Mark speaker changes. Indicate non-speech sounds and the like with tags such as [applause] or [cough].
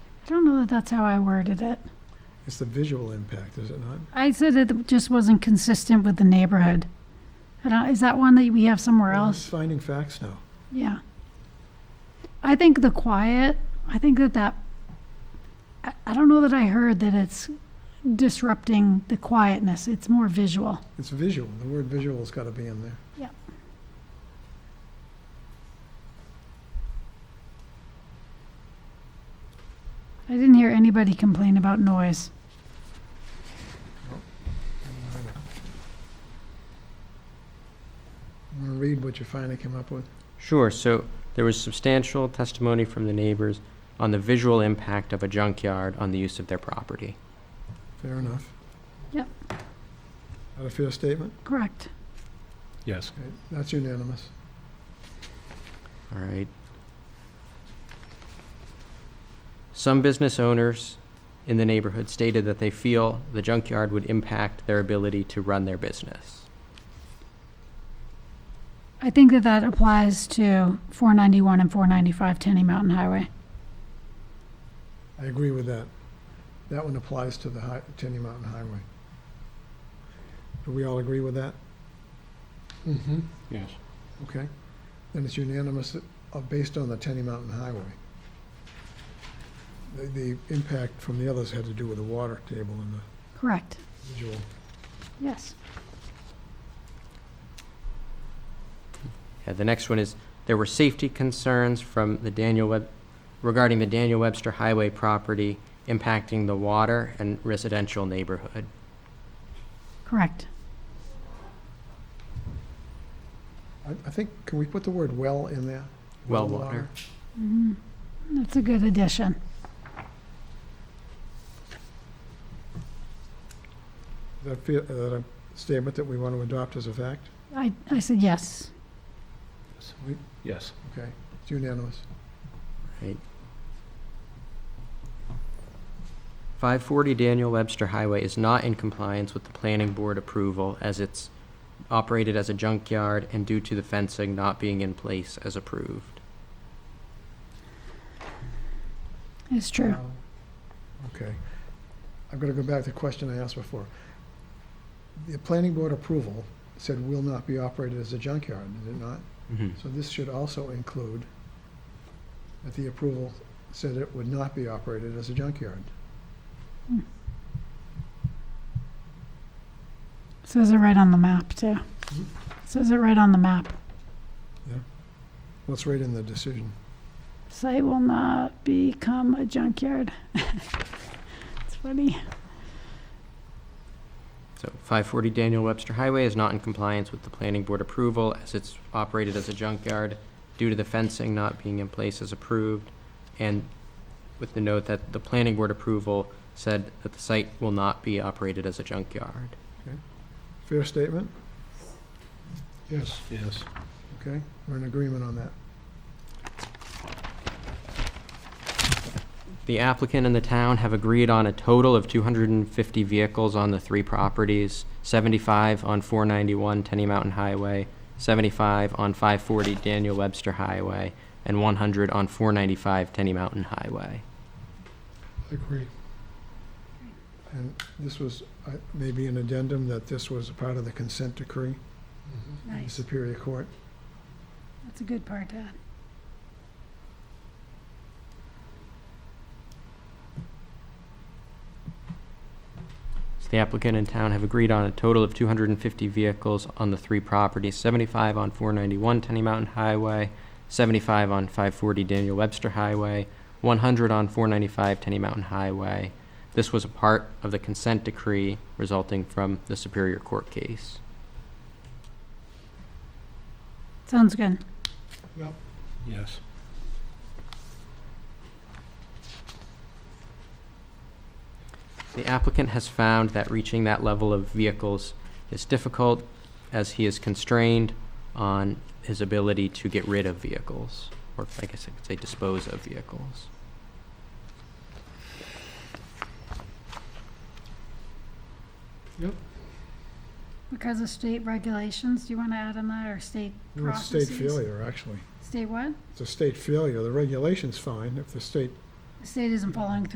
Speaker 1: Uh, That's how I worded it.
Speaker 2: It's the visual impact, is it not?
Speaker 1: I said it just wasn't consistent with the neighborhood. I don't- Is that one that we have somewhere
Speaker 2: Well,
Speaker 1: else?
Speaker 2: it's Finding facts now.
Speaker 1: Yeah. I think the quiet, I think that that, I, I don't know that I heard that it's disrupting the quietness. It's more visual.
Speaker 2: It's visual. The word visual's got to be in there.
Speaker 1: I didn't hear anybody complain about noise.
Speaker 2: I'm going to read what you finally came up with.
Speaker 3: Sure, so there was substantial testimony from the neighbors on the visual impact of a junkyard on the use of their property.
Speaker 2: Fair enough.
Speaker 1: Yep.
Speaker 2: That a fair statement?
Speaker 1: Correct.
Speaker 4: Yes.
Speaker 2: Okay, That's unanimous.
Speaker 3: All right. Some business owners in the neighborhood stated that they feel the junkyard would impact their ability to run their business.
Speaker 1: I think that that applies to 491 and 495 Tenny Mountain Highway.
Speaker 2: I agree with that. That one applies to the hi- Tenny Mountain Highway. Do we all agree with that? Mm-hmm.
Speaker 4: Yes.
Speaker 2: Okay. Then it's unanimous uh, based on the Tenny Mountain Highway. The, the impact from the others had to do with the water table and the
Speaker 1: Correct.
Speaker 2: visual.
Speaker 1: Yes.
Speaker 3: Yeah, the next one is, there were safety concerns from the Daniel Web, regarding the Daniel Webster Highway property impacting the water and residential neighborhood.
Speaker 1: Correct.
Speaker 2: I, I think, can we put the word well in there?
Speaker 3: Well water.
Speaker 1: Mhm. That's a good addition.
Speaker 2: Is That, fe- uh, that a statement that we want to adopt as a fact?
Speaker 1: I, I said yes.
Speaker 4: Yes.
Speaker 2: Okay, it's unanimous.
Speaker 3: Right. Five forty Daniel Webster Highway is not in compliance with the planning board approval as it's operated as a junkyard and due to the fencing not being in place as approved.
Speaker 1: It's true.
Speaker 2: Wow. Okay. I'm going to go back to the question I asked before. The planning board approval said will not be operated as a junkyard, did it not? So this should also include that the approval said it would not be operated as a junkyard.
Speaker 1: Says it right on the map, too.
Speaker 2: Mhm.
Speaker 1: Says it right on the map.
Speaker 2: Let's write in the decision.
Speaker 1: Site will not become a junkyard. [laughs] It's funny.
Speaker 3: So five forty Daniel Webster Highway is not in compliance with the planning board approval as it's operated as a junkyard due to the fencing not being in place as approved. And with the note that the planning board approval said that the site will not be operated as a junkyard.
Speaker 2: Fair statement? Yes.
Speaker 4: Yes.
Speaker 2: Okay, we're in agreement on that.
Speaker 3: The applicant and the town have agreed on a total of 250 vehicles on the three properties, 75 on 491 Tenny Mountain Highway, 75 on 540 Daniel Webster Highway, and 100 on 495 Tenny Mountain Highway.
Speaker 2: Agree. And this was, uh, maybe an addendum that this was a part of the consent decree
Speaker 4: Mm-hmm.
Speaker 2: in the
Speaker 1: Nice.
Speaker 2: Superior Court.
Speaker 1: That's a good part, Dad.
Speaker 3: So the applicant and town have agreed on a total of 250 vehicles on the three properties, 75 on 491 Tenny Mountain Highway, 75 on 540 Daniel Webster Highway, 100 on 495 Tenny Mountain Highway. This was a part of the consent decree resulting from the Superior Court case.
Speaker 1: Sounds good.
Speaker 4: Yes.
Speaker 3: The applicant has found that reaching that level of vehicles is difficult as he is constrained on his ability to get rid of vehicles, or I guess I could say dispose of vehicles.
Speaker 1: Because of state regulations, do you want to add on that, or state
Speaker 2: No, It's state
Speaker 1: Processes.
Speaker 2: failure, actually.
Speaker 1: State what?
Speaker 2: It's a state failure. The regulation's fine if the state
Speaker 1: The state isn't following